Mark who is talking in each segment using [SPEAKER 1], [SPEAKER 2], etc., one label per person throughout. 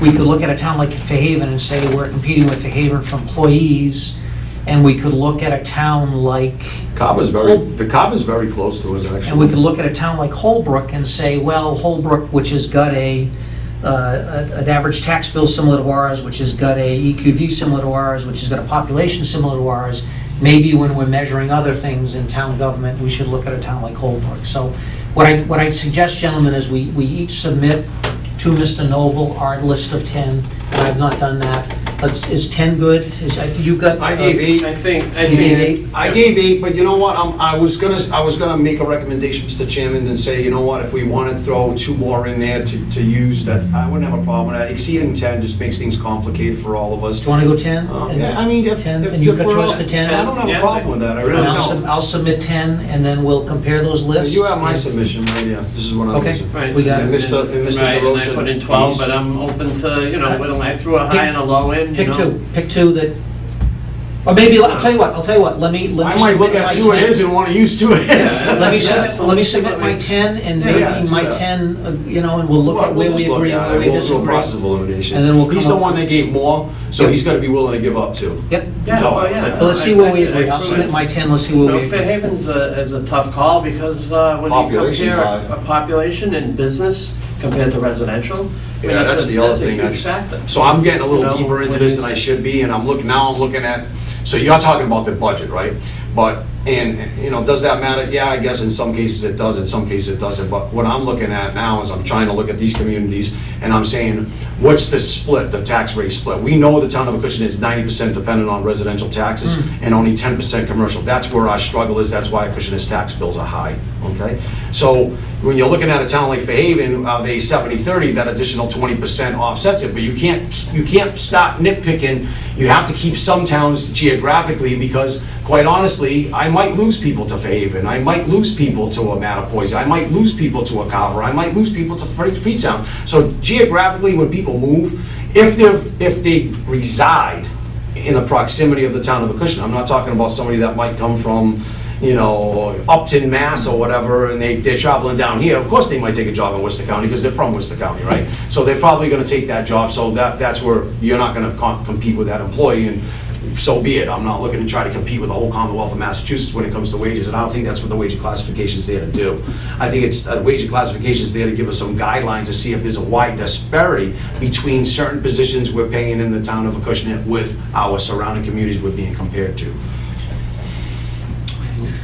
[SPEAKER 1] We could look at a town like Fairhaven and say we're competing with Fairhaven for employees, and we could look at a town like,
[SPEAKER 2] Carver's very, the Carver's very close to us,
[SPEAKER 1] and we
[SPEAKER 2] actually.
[SPEAKER 1] could look at a town like Holbrook and say, well, Holbrook, which has got a, uh, a- an average tax bill similar to ours, which has got a EQV similar to ours, which has got a population similar to ours, maybe when we're measuring other things in town government, we should look at a town like Holbrook. So what I, what I suggest, gentlemen, is we, we each submit to Mr. Noble our list of 10, and I've not done that. Let's- Is 10 good? Is, you got? uh,
[SPEAKER 2] I gave eight.
[SPEAKER 3] I think, I
[SPEAKER 1] You need
[SPEAKER 3] think.
[SPEAKER 1] eight?
[SPEAKER 2] I gave eight, but you know what, um, I was gonna, I was gonna make a recommendation, Mr. Chairman, and say, you know what, if we wanna throw two more in there to, to use, that, I wouldn't have a problem with that. Exceeding ten just makes things complicated for all of us.
[SPEAKER 1] Do you want to go 10?
[SPEAKER 2] Um, Yeah, I mean, if,
[SPEAKER 1] 10,
[SPEAKER 2] if
[SPEAKER 1] and you've
[SPEAKER 2] if
[SPEAKER 1] got
[SPEAKER 2] we're
[SPEAKER 1] yours
[SPEAKER 2] all-
[SPEAKER 1] to 10?
[SPEAKER 2] I don't have a
[SPEAKER 3] Yeah.
[SPEAKER 2] problem with that, I really
[SPEAKER 1] And I'll, sub-
[SPEAKER 2] don't.
[SPEAKER 1] I'll submit 10, and then we'll compare those lists.
[SPEAKER 2] You have my submission right here, this is what I'm
[SPEAKER 1] Okay.
[SPEAKER 2] using.
[SPEAKER 3] Right.
[SPEAKER 1] We got
[SPEAKER 2] And
[SPEAKER 1] it.
[SPEAKER 2] Mr. and Mr.
[SPEAKER 3] Right, and I
[SPEAKER 2] DeRosa,
[SPEAKER 3] put in 12,
[SPEAKER 2] he's-
[SPEAKER 3] but I'm open to, you know,
[SPEAKER 1] Cut.
[SPEAKER 3] when I threw a
[SPEAKER 1] Pick-
[SPEAKER 3] high and a low in, you
[SPEAKER 1] Pick
[SPEAKER 3] know.
[SPEAKER 1] two, pick two that, or maybe, I'll tell you what, I'll tell you what, let me, let
[SPEAKER 2] I
[SPEAKER 1] me.
[SPEAKER 2] might
[SPEAKER 1] submit
[SPEAKER 2] look at
[SPEAKER 1] my
[SPEAKER 2] two of
[SPEAKER 1] 10.
[SPEAKER 2] his and wanna use two of his.
[SPEAKER 3] Yeah,
[SPEAKER 1] Let me
[SPEAKER 3] Yeah,
[SPEAKER 1] submit,
[SPEAKER 3] so
[SPEAKER 1] let me
[SPEAKER 3] let's
[SPEAKER 1] submit
[SPEAKER 3] submit
[SPEAKER 1] my
[SPEAKER 3] my-
[SPEAKER 1] 10, and
[SPEAKER 2] Yeah, yeah,
[SPEAKER 1] maybe
[SPEAKER 2] do
[SPEAKER 1] my
[SPEAKER 2] that.
[SPEAKER 1] 10, uh, you know, and we'll look
[SPEAKER 2] Well,
[SPEAKER 1] at where
[SPEAKER 2] we'll
[SPEAKER 1] we
[SPEAKER 2] just look
[SPEAKER 1] agree
[SPEAKER 2] at
[SPEAKER 1] and
[SPEAKER 2] it.
[SPEAKER 1] where we
[SPEAKER 2] We'll do a
[SPEAKER 1] disagree.
[SPEAKER 2] process of elimination.
[SPEAKER 1] And then we'll
[SPEAKER 2] He's
[SPEAKER 1] come
[SPEAKER 2] the
[SPEAKER 1] up-
[SPEAKER 2] one that gave more, so
[SPEAKER 1] Yeah.
[SPEAKER 2] he's gotta be willing to give up too.
[SPEAKER 1] Yep,
[SPEAKER 3] Yeah,
[SPEAKER 2] No,
[SPEAKER 3] well, yeah.
[SPEAKER 1] so let's see where we agree,
[SPEAKER 3] I- I-
[SPEAKER 1] I'll submit my 10, let's see
[SPEAKER 3] You
[SPEAKER 1] where
[SPEAKER 3] know,
[SPEAKER 1] we
[SPEAKER 3] Fair
[SPEAKER 1] agree.
[SPEAKER 3] Haven's a, is a tough call because uh, when you
[SPEAKER 2] Population's
[SPEAKER 3] compare
[SPEAKER 2] high.
[SPEAKER 3] a population and business compared to residential, I mean,
[SPEAKER 2] Yeah, that's
[SPEAKER 3] a-
[SPEAKER 2] the other
[SPEAKER 3] that's a
[SPEAKER 2] thing.
[SPEAKER 3] huge
[SPEAKER 2] that's-
[SPEAKER 3] factor.
[SPEAKER 2] So I'm getting a
[SPEAKER 3] You know,
[SPEAKER 2] little deeper into
[SPEAKER 3] when
[SPEAKER 2] this
[SPEAKER 3] you-
[SPEAKER 2] than I should be, and I'm looking, now I'm looking at, so you're talking about the budget, right? But, and, you know, does that matter? Yeah, I guess in some cases it does, in some cases it doesn't, but what I'm looking at now is I'm trying to look at these communities, and I'm saying, what's the split, the tax rate split? We know the town of Acushnet is ninety percent dependent on residential taxes and only ten percent commercial. That's where our struggle is, that's why Acushnet's tax bills are high, okay? So when you're looking at a town like Fairhaven, uh, they 70/30, that additional 20% offsets it, but you can't, you can't stop nitpicking. You have to keep some towns geographically, because quite honestly, I might lose people to Fairhaven, I might lose people to a Mattapoisett, I might lose people to a Carver, I might lose people to Fre- Freetown. So geographically, when people move, if they're, if they reside in the proximity of the town of Acushnet. I'm not talking about somebody that might come from, you know, Upton, Mass or whatever, and they, they're traveling down here. Of course, they might take a job in Worcester County because they're from Worcester County, right? So they're probably gonna take that job, so that, that's where you're not gonna com- compete with that employee and so be it. I'm not looking to try to compete with the whole Commonwealth of Massachusetts when it comes to wages, and I don't think that's what the wage classification is there to do. I think it's, uh, wage classification is there to give us some guidelines to see if there's a wide disparity between certain positions we're paying in the town of Acushnet with our surrounding communities we're being compared to.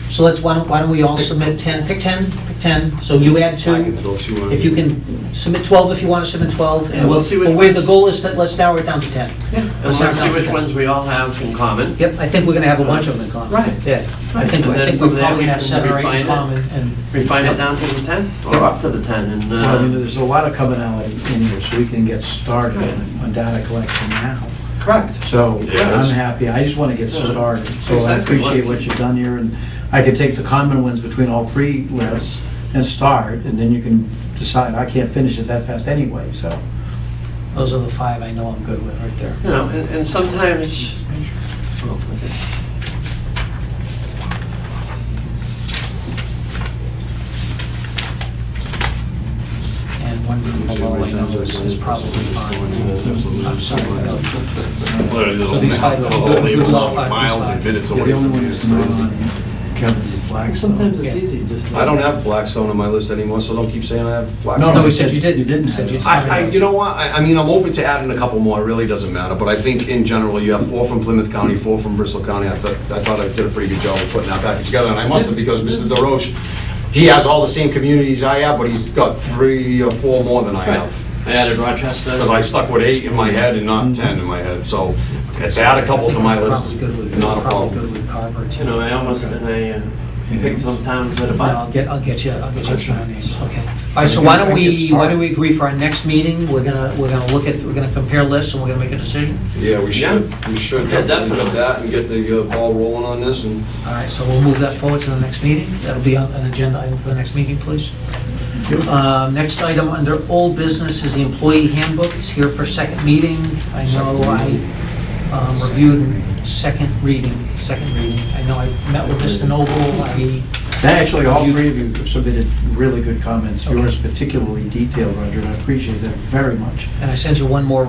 [SPEAKER 1] So let's, why don't, why don't we all submit 10, pick 10, pick 10, so you add
[SPEAKER 2] I can
[SPEAKER 1] two.
[SPEAKER 2] throw two on.
[SPEAKER 1] If you can submit 12, if you want to submit 12,
[SPEAKER 3] Yeah,
[SPEAKER 1] and we'll,
[SPEAKER 3] we'll see which
[SPEAKER 1] well, wait, the
[SPEAKER 3] ones-
[SPEAKER 1] goal is that, let's narrow it down to 10.
[SPEAKER 3] And
[SPEAKER 1] Let's
[SPEAKER 3] let's
[SPEAKER 1] narrow it down
[SPEAKER 3] see
[SPEAKER 1] to
[SPEAKER 3] which
[SPEAKER 1] 10.
[SPEAKER 3] ones we all have in common.
[SPEAKER 1] Yep, I think we're gonna have a bunch of them in common.
[SPEAKER 3] Right.
[SPEAKER 1] Yeah, I think,
[SPEAKER 3] And
[SPEAKER 1] I
[SPEAKER 3] then
[SPEAKER 1] think we
[SPEAKER 3] from there,
[SPEAKER 1] probably
[SPEAKER 3] we
[SPEAKER 1] have
[SPEAKER 3] can
[SPEAKER 1] seven or eight in
[SPEAKER 3] refine it.
[SPEAKER 1] common, and
[SPEAKER 3] Refine it down to the 10, or up to the 10, and,
[SPEAKER 4] Well, you know,
[SPEAKER 3] uh,
[SPEAKER 4] there's a lot of commonality in here, so we can get started on- on data collection now.
[SPEAKER 3] correct.
[SPEAKER 4] So
[SPEAKER 2] Yeah.
[SPEAKER 4] I'm happy, I just want to get started. So I
[SPEAKER 3] Exactly.
[SPEAKER 4] appreciate what you've done here, and I could take the common ones between all three lists and start, and then you can decide, I can't finish it that fast anyway, so.
[SPEAKER 1] those are the five I know I'm good with right there.
[SPEAKER 3] You know, and and sometimes, Oh,
[SPEAKER 1] And one from below I know is is probably fine. I'm sorry. So these five are good, good luck, five, these
[SPEAKER 5] Miles and
[SPEAKER 1] five.
[SPEAKER 5] minutes
[SPEAKER 4] Yeah,
[SPEAKER 5] away
[SPEAKER 4] the only
[SPEAKER 5] from
[SPEAKER 4] one
[SPEAKER 5] you.
[SPEAKER 4] who's not on Kevin's is Blackstone.
[SPEAKER 3] sometimes it's
[SPEAKER 1] Yeah.
[SPEAKER 3] easy, just.
[SPEAKER 2] I don't have Blackstone on my list anymore, so don't keep saying I have Blackstone.
[SPEAKER 4] No,
[SPEAKER 1] No,
[SPEAKER 4] no,
[SPEAKER 1] we
[SPEAKER 4] you
[SPEAKER 1] said you didn't.
[SPEAKER 4] didn't, you didn't
[SPEAKER 1] Said
[SPEAKER 4] have
[SPEAKER 1] you
[SPEAKER 4] it.
[SPEAKER 2] I, I, you know what, I, I mean, I'm open to adding a couple more, it really doesn't matter, but I think in general, you have four from Plymouth County, four from Bristol County, I thought, I thought I did a pretty good job of putting that package together, and I must have, because Mr. DeRoche, he has all the same communities I have, but he's got three or four more than I have.
[SPEAKER 3] I added Rochester.
[SPEAKER 2] Because I stuck with eight in my head and not ten in my head, so it's add a couple to my
[SPEAKER 1] Mm-hmm.
[SPEAKER 2] list,
[SPEAKER 1] Probably good with-
[SPEAKER 2] not a
[SPEAKER 1] Probably
[SPEAKER 2] problem.
[SPEAKER 1] good with Carver, too.
[SPEAKER 3] You know, I almost, and I uh, picked some towns that are
[SPEAKER 1] But I'll
[SPEAKER 3] about.
[SPEAKER 1] get, I'll get you, I'll get you
[SPEAKER 4] Okay.
[SPEAKER 1] some names, okay. All right, so why don't
[SPEAKER 4] I
[SPEAKER 1] we,
[SPEAKER 4] get
[SPEAKER 1] why don't we agree for our next meeting, we're gonna, we're gonna look at, we're gonna compare lists and we're gonna make a decision?
[SPEAKER 2] Yeah, we should, we should
[SPEAKER 3] Yeah,
[SPEAKER 2] definitely get
[SPEAKER 3] definitely.
[SPEAKER 2] that and get the uh, ball rolling on this, and
[SPEAKER 1] All right, so we'll move that forward to the next meeting. That'll be on an agenda item for the next meeting, please. Um, Next item under old business is the employee handbook. It's here for second meeting. I know I um, reviewed second reading, second reading. I know I met with Mr. Noble, I,
[SPEAKER 4] Actually, all three of you have submitted really good comments,
[SPEAKER 1] Okay.
[SPEAKER 4] yours particularly detailed, Roger, and I appreciate that very much.
[SPEAKER 1] and I sent you one more